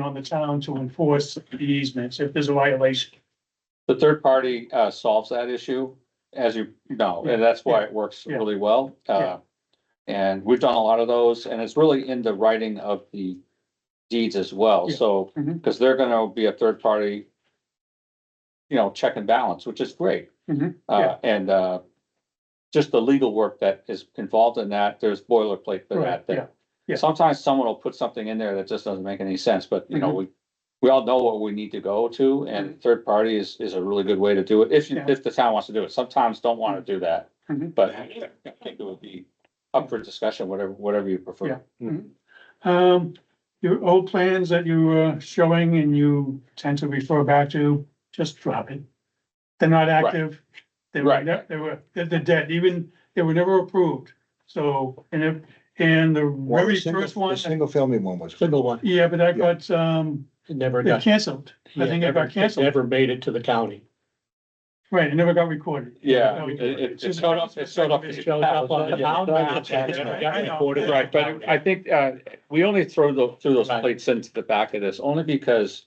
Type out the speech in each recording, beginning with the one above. on the town to enforce the easements if there's a violation. The third party uh solves that issue, as you know, and that's why it works Yeah. really well. Uh, and we've done a lot of those, and it's really in the writing of the deeds as well, Yeah. so, Mhm. because they're gonna be a third party. You know, check and balance, which is great. Mhm, Uh, yeah. and uh, just the legal work that is involved in that, there's boilerplate for Right, that. that yeah, yeah. Sometimes someone will put something in there that just doesn't make any sense, but you know, Mm-hmm. we we all know what we need to go to, and third party is, is a really good way to do it, if, you- Yeah. if the town wants to do it, sometimes don't wanna do that. Mhm. But I think it would be up for discussion, whatever, whatever you Yeah. prefer. Um, your old plans that you were showing and you tend to refer back to, just drop it. They're not active. They were, Right. ne- they were, they're, they're dead, even, they were never approved, so, and if, and the Well, very the single- first one, The single family one was. Single one, yeah, but I got, um, it never it got. canceled. I yeah, think it never- got canceled, Never made it to the county. right, it never got recorded. Yeah, No, it, it's it- it just- showed up, it showed up. It It showed up on the town map. Yeah, I know. Recorded. Right, but I think, uh, we only throw the, threw those Right. plates into the back of this, only because,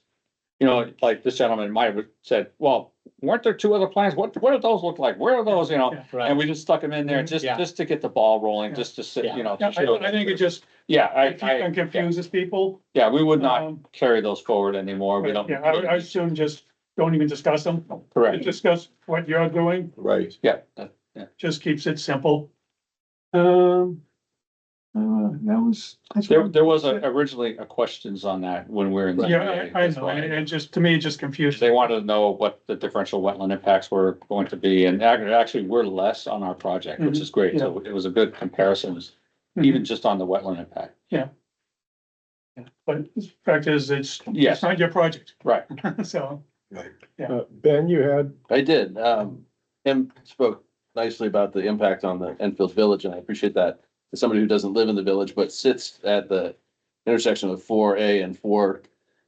you know, like this gentleman might have said, well, weren't there two other plans? What, what did those look like? Where are those, you know? And Right, we just stuck them in there just, Yeah. just to get the ball rolling, Yeah. just to sit, Yeah. you know. Mm-hmm. to Yeah, show I, I think it just, Yeah, I, it I, yeah. confuses people. yeah, we would not Um, carry those forward anymore. We don't. Yeah, I, I assume just don't even discuss them. Correct. Discuss what you're doing, Right. Yeah, that- just keeps it simple. Um. Uh, that was. that's there, what- there was a- originally a questions on that when we were in. Yeah, I, I That's know, why. and it just, to me, it just confused. They wanted to know what the differential wetland impacts were going to be, and ac- actually, we're less on our project, Mm-hmm. which is great, so it was a good comparison, even just on the wetland impact. But the fact is, it's, it's Yes, not your project, right, so. Uh, Ben, you had, I did. Um, Tim spoke nicely about the impact on the Enfield Village, and I appreciate that. As somebody who doesn't live in the village but sits at the intersection of four A and four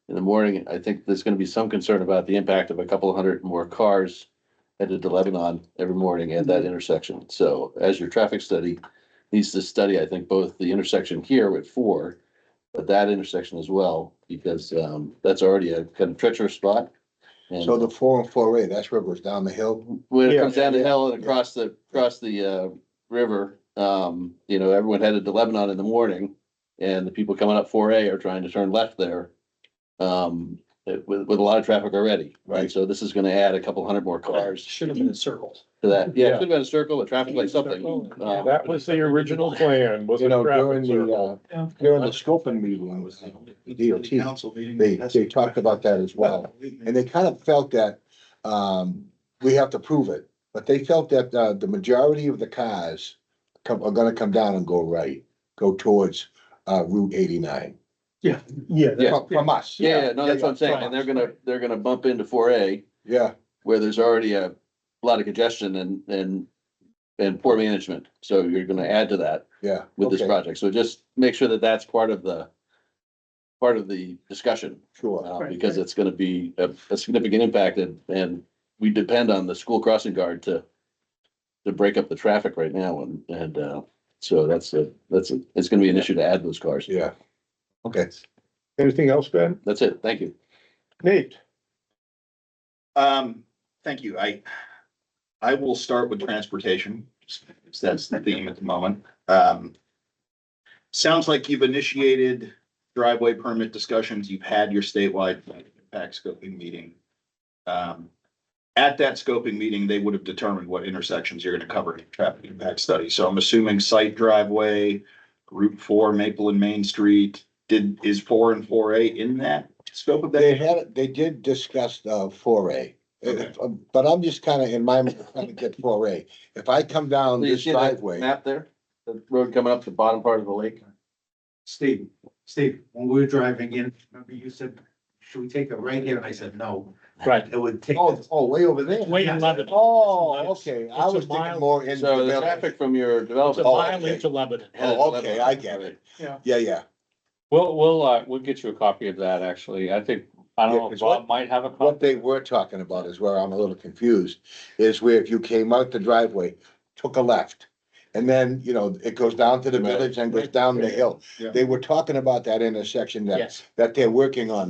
in the morning, I think there's gonna be some concern about the impact of a couple hundred more cars headed to Lebanon every morning at that intersection. So as your traffic study needs to study, I think, both the intersection here at four, but that intersection as well, because, um, that's already a kind of treacherous spot. and- So the four and four A, that's where it goes down the hill. when it Yeah. comes down the hill and Yeah. across the, across the, uh, river, um, you know, everyone headed to Lebanon in the morning. And the people coming up four A are trying to turn left there, um, with, with a lot of traffic already, right? Right. So this is gonna add a couple hundred more cars should have been in circles. to that. Yeah, it Yeah. should have been a circle, a traffic light, something. Um, that was the original plan, was You a know, traffic during the, circle. uh, Yeah. during the scoping meeting, when it was uh, the DOT, they, they talked about that as well. And they kind of felt that, um, we have to prove it, but they felt that, uh, the majority of the cars come, are gonna come down and go right, go towards, uh, Route eighty-nine. Yeah. Yeah. Yeah. From from us. Yeah, yeah, no, that's what I'm saying. from And they're us, gonna, right. they're gonna bump into four A Yeah, where there's already a lot of congestion and, and, and poor management. So you're gonna add to that. yeah. with this okay, project. So just make sure that that's part of the, part of the discussion, Sure, uh, Right, because right. it's gonna be a, a significant impact and, and we depend on the school crossing guard to, to break up the traffic right now and, and, uh, so that's a, that's a, it's gonna be an issue to add those cars. yeah. Okay. Anything else, Ben? That's it. Thank you. Nate? Um, thank you. I, I will start with transportation, since that's the theme at the moment. Um, sounds like you've initiated driveway permit discussions. You've had your statewide impact scoping meeting. Um, at that scoping meeting, they would have determined what intersections you're gonna cover in your traffic impact study. So I'm assuming site driveway, Route Four, Maple and Main Street, did, is four and four A in that scope of that? They had, they did discuss uh foray, Okay. Uh, but I'm just kind of in my mind trying to get foray. If I come down You this see that driveway, Map there, the road coming up the bottom part of the lake. Steve, Steve, when we were driving in, remember you said, should we take a right here? And I said, no, Right. it would take. oh, oh, way over there. Way in Lebanon. Oh, okay, I It's a was thinking mile. more in. So the Lebanon. traffic from your It's a development. mile into Lebanon. Oh, okay, I get it. Yeah, yeah, we'll, we'll, uh, we'll get you a copy of that, actually, I think, I don't Yeah, know, 'cause Bob might have a what copy. they were talking about is where I'm a little confused, is where if you came out the driveway, took a left. And then, you know, it goes down to the Right. village and goes down the hill. Yeah. They were talking about that intersection that, Yes. that they're working on